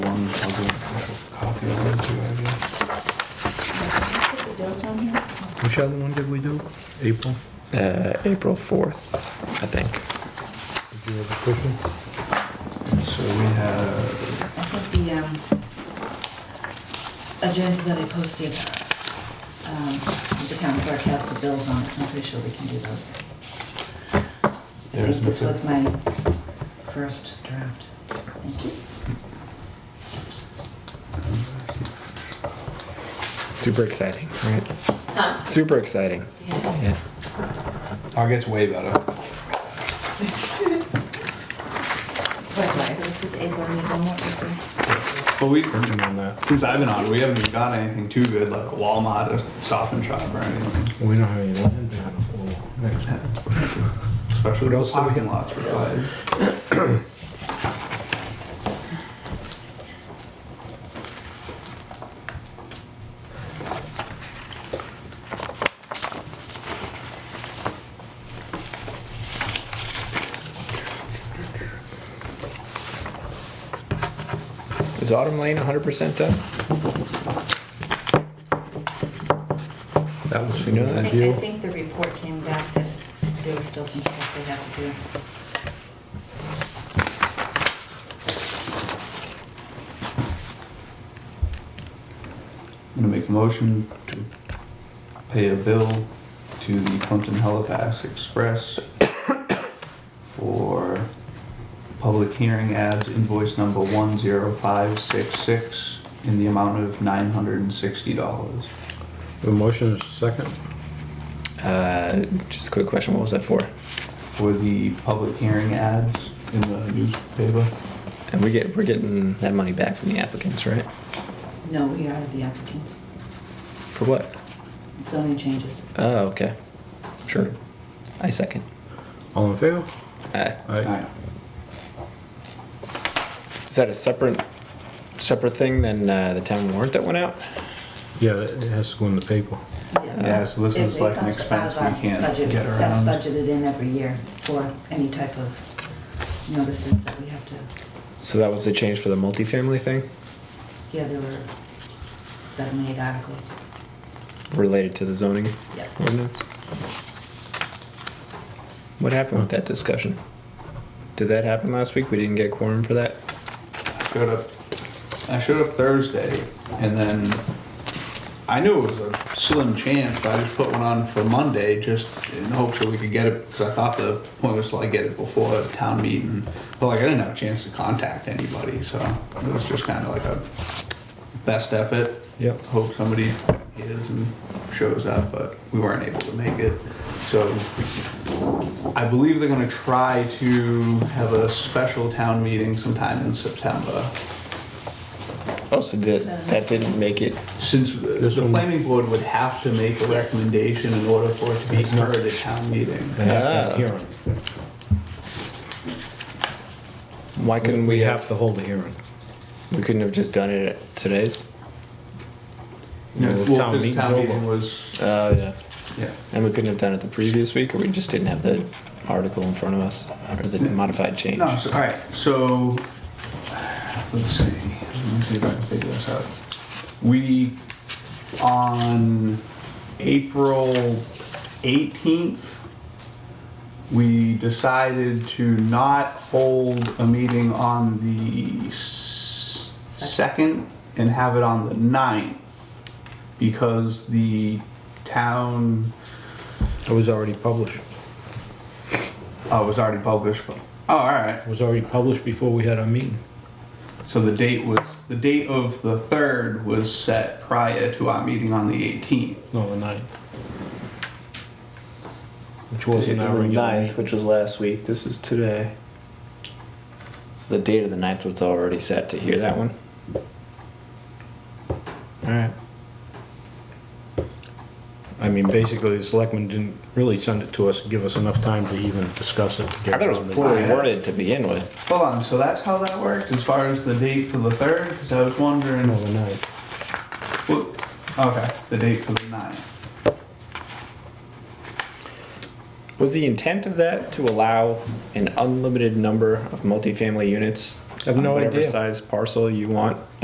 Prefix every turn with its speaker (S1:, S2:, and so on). S1: I'll do a copy of it too, I guess.
S2: Put the dates on here?
S3: Which other one did we do? April?
S4: Uh, April 4th, I think.
S3: Did you have a question?
S1: So we have,
S2: I think the um, agenda that I posted, um, the town clerk has the bills on it, I'm pretty sure we can do those. I
S1: There's
S2: think this
S1: nothing.
S2: was my first draft. Thank you.
S4: Super exciting, right?
S2: Huh?
S4: Super exciting.
S2: Yeah.
S4: Yeah.
S1: I'll get oh, way better.
S2: Likewise, this is April, you don't want to do.
S1: But we, since I've been on, we haven't even gotten anything too good, like Walmart or Stop and Shop or anything.
S3: We don't have any land down the next
S1: Especially
S3: What
S1: the
S3: else do we
S1: parking
S3: have?
S1: lots provided.
S4: Is Autumn Lane 100% done?
S3: That was
S4: You know
S2: I
S4: that?
S3: from
S2: think,
S3: you.
S2: I think the report came back that there was still some stuff they had to do.
S1: I'm gonna make a motion to pay a bill to the Plumpton Halifax Express for public hearing ads invoice number one zero five six six in the amount of nine hundred and sixty dollars.
S3: The motion is second.
S4: Uh, just a quick question. What was that for?
S1: For the public hearing ads in the newspaper.
S4: And we get we're getting that money back from the applicants, right?
S2: No, we are the applicants,
S4: For what?
S2: it's only changes.
S4: Oh, okay. Sure. I second.
S3: All in favor?
S4: Uh,
S1: Aye.
S4: is that a separate separate thing than uh, the town warrant that went out?
S3: Yeah, that- it has to go in the paper.
S1: Yeah, so this
S2: It-
S1: is
S2: it
S1: like an
S2: comes out
S1: expense
S2: of our
S1: we can't
S2: budget.
S1: get around.
S2: That's budgeted in every year for any type of notices that we have to,
S4: So that was the change for the multifamily thing
S2: yeah, there were seven, eight articles.
S4: related to the zoning
S2: Yep.
S4: ordinance. What happened with that discussion? Did that happen last week? We didn't get quorum for that.
S1: Showed up, I showed up Thursday and then I knew it was a slim chance, but I just put one on for Monday just in hopes that we could get it because I thought the point was to like get it before town meeting. But like I didn't have a chance to contact anybody, so it was just kind of like a best effort.
S3: Yep.
S1: Hope somebody is and shows up, but we weren't able to make it. So I believe they're gonna try to have a special town meeting sometime in September.
S4: Oh, so that, that didn't make it.
S1: Since the
S3: This
S1: the
S3: one-
S1: planning board would have to make a recommendation in order for it to be heard at town meeting.
S3: They have to
S4: Ah.
S3: hearing.
S4: Why couldn't we,
S3: We
S4: have?
S3: have to hold a hearing.
S4: We couldn't have just done it at today's.
S1: You know,
S3: Well,
S1: Well,
S3: town
S1: this
S3: meeting's
S1: town
S3: over.
S1: meeting was,
S4: Oh yeah.
S1: yeah,
S4: And we couldn't have done it the previous week, or we just didn't have the article in front of us, or the modified change.
S1: no, so, all right, so, let's see, let me see if I can figure this out. We, on April eighteenth, we decided to not hold a meeting on the s- second and have it on the ninth because the town
S3: It was already published.
S1: Oh, it was already published, but, oh, all right.
S3: It was already published before we had our meeting.
S1: So the date was, the date of the third was set prior to our meeting on the eighteenth.
S3: No, the ninth. Which wasn't our regular
S4: ninth,
S3: meeting.
S4: which was last week. This is today. So the date of the ninth was already set to hear that one. All right.
S3: I mean, basically, the selectmen didn't really send it to us, give us enough time to even discuss it.
S4: I thought it was poorly worded to begin with.
S1: Hold on, so that's how that worked as far as the date for the third? Because I was wondering,
S3: No, the ninth.
S1: whoop, okay, the date for the ninth.
S4: Was the intent of that to allow an unlimited number of multifamily units?
S3: have no
S4: on whatever
S3: idea.
S4: size parcel you want